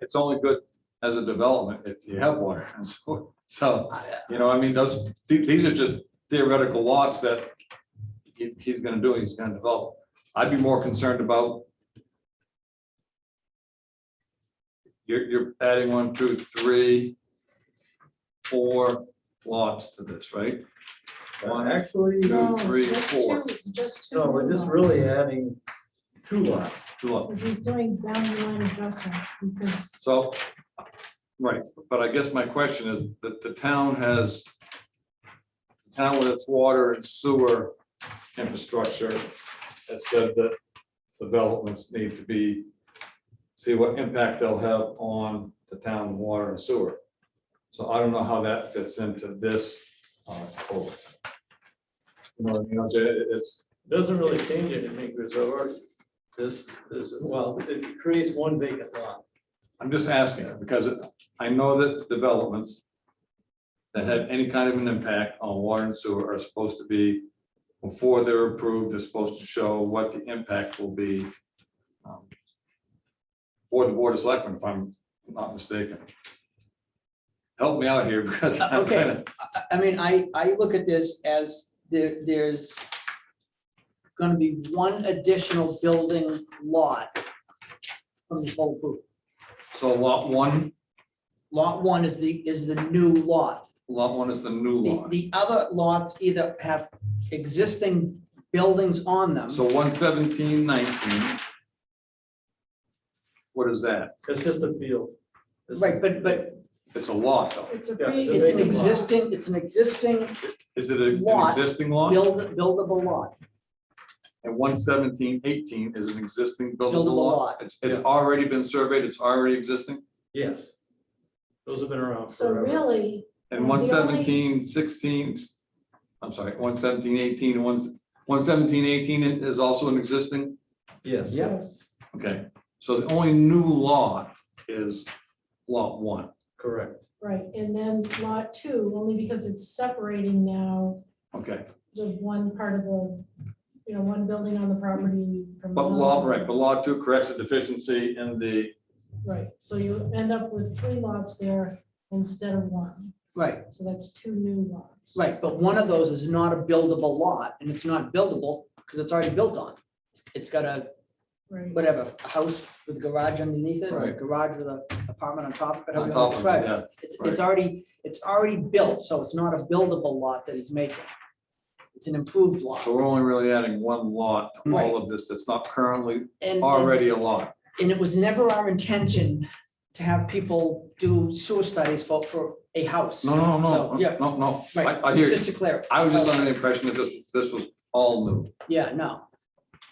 it's only good as a development if you have one. And so, so, you know, I mean, those, the- these are just theoretical lots that he- he's gonna do, he's gonna develop. I'd be more concerned about you're, you're adding one, two, three, four lots to this, right? One, Actually, Two, No, three, just four. two- Just two. no, we're just really adding two lots. two lots. Because He's doing boundary line adjustments because So, right, but I guess my question is that the town has, the town with its water and sewer infrastructure has said that developments need to be, see what impact they'll have on the town water and sewer. So I don't know how that fits into this. uh, code. You know, you know, it- it's, It Doesn't really change anything, because I've already- this, this, well, it creates one vacant lot. I'm just asking, because I know that developments that have any kind of an impact on water and sewer are supposed to be, before they're approved, they're supposed to show what the impact will be um, for the board of selectmen, if I'm not mistaken. Help me out here, because I'm Okay. kind of, I- I mean, I, I look at this as there, there's gonna be one additional building lot from the whole group. so lot one, Lot one is the, is the new lot. lot one is the new The, lot. the other lots either have existing buildings on them. So one seventeen nineteen. What is that? It's just a field. It's- Right, but, but It's a lot, though. it's a Yeah, pretty. it's a it's an vacant lot. existing, it's an existing Is it an Lot. existing lot? build, buildable lot. And one seventeen eighteen is an existing buildable Buildable lot. lot. It's, it's already been surveyed, it's already existing. Yes. Those have been around So forever. really, And Well, one the only- seventeen sixteen, I'm sorry, one seventeen eighteen, one, one seventeen eighteen is also an existing. Yes. Yes. Okay, so the only new lot is lot one. Correct. right, and then lot two, only because it's separating now Okay, the one part of the, you know, one building on the property from. but another. lot, right, but lot two corrects a deficiency in the, Right, so you end up with three lots there instead of one, Right, so that's two new lots. right, but one of those is not a buildable lot, and it's not buildable, because it's already built on. It's got a Right. whatever, a house with a garage underneath it, or a Right. garage with an apartment on top, but on top of it, yeah. It's, right. it's already, it's already built, so it's not a buildable lot that he's making. It's an improved lot. So we're only really adding one lot to Right. all of this that's not currently And, and already a lot. and it was never our intention to have people do sewer studies for, for a house. No, no, no, So, yeah. no, no, Right, I, I hear you. just to clarify. I was just under the impression that this, this was all new. Yeah, no.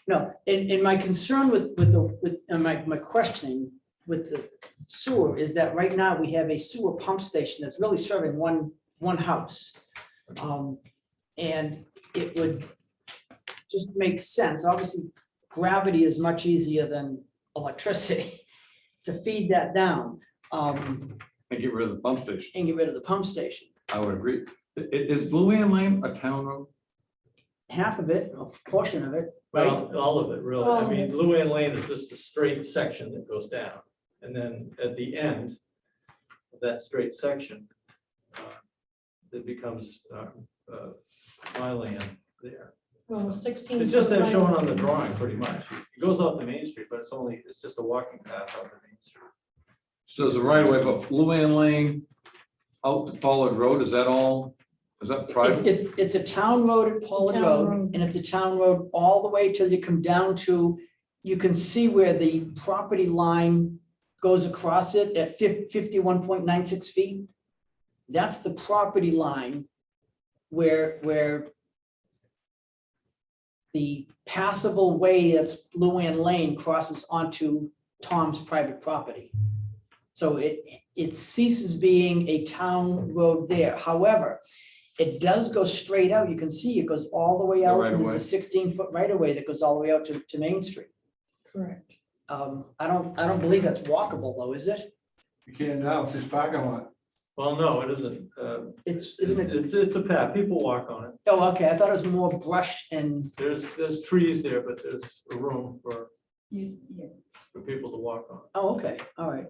No, and, and my concern with, with the, with, and my, my questioning with the sewer is that right now we have a sewer pump station that's really serving one, one house. Um, and it would just make sense, obviously gravity is much easier than electricity to feed that down, um, And get rid of the pump station. and get rid of the pump station. I would agree. I- i- Is Luann Lane a town road? Half of it, a portion of it, Well, all of it, really. I All of mean, it. Luann Lane is just a straight section that goes down. And then at the end of that straight section, uh, it becomes uh, uh, my land there. Well, sixteen. It's just foot that shown wide. on the drawing, pretty much. It goes off the main street, but it's only, it's just a walking path off the main street. So there's a right away, but Luann Lane out to Pollard Road, is that all? Is that It's, private? it's, it's a town road at Pollard town Road, road. and it's a town road all the way till you come down to, you can see where the property line goes across it at fif- fifty-one point nine six feet. That's the property line where, where the passable way that's Luann Lane crosses onto Tom's private property. So it, it ceases being a town road there. However, it does go straight out. You can see it goes all the way The out. right of and There's way. a sixteen foot right of way that goes all the way out to, to Main Street. Correct. Um, I don't, I don't believe that's walkable though, is it? You can't now, it's parking lot. Well, no, it isn't. Uh, It's, isn't it? It's, it's a path. People walk on it. Oh, okay. I thought it was more brush and, There's, there's trees there, but there's room for, You, yeah. for people to walk on. oh, okay. All right.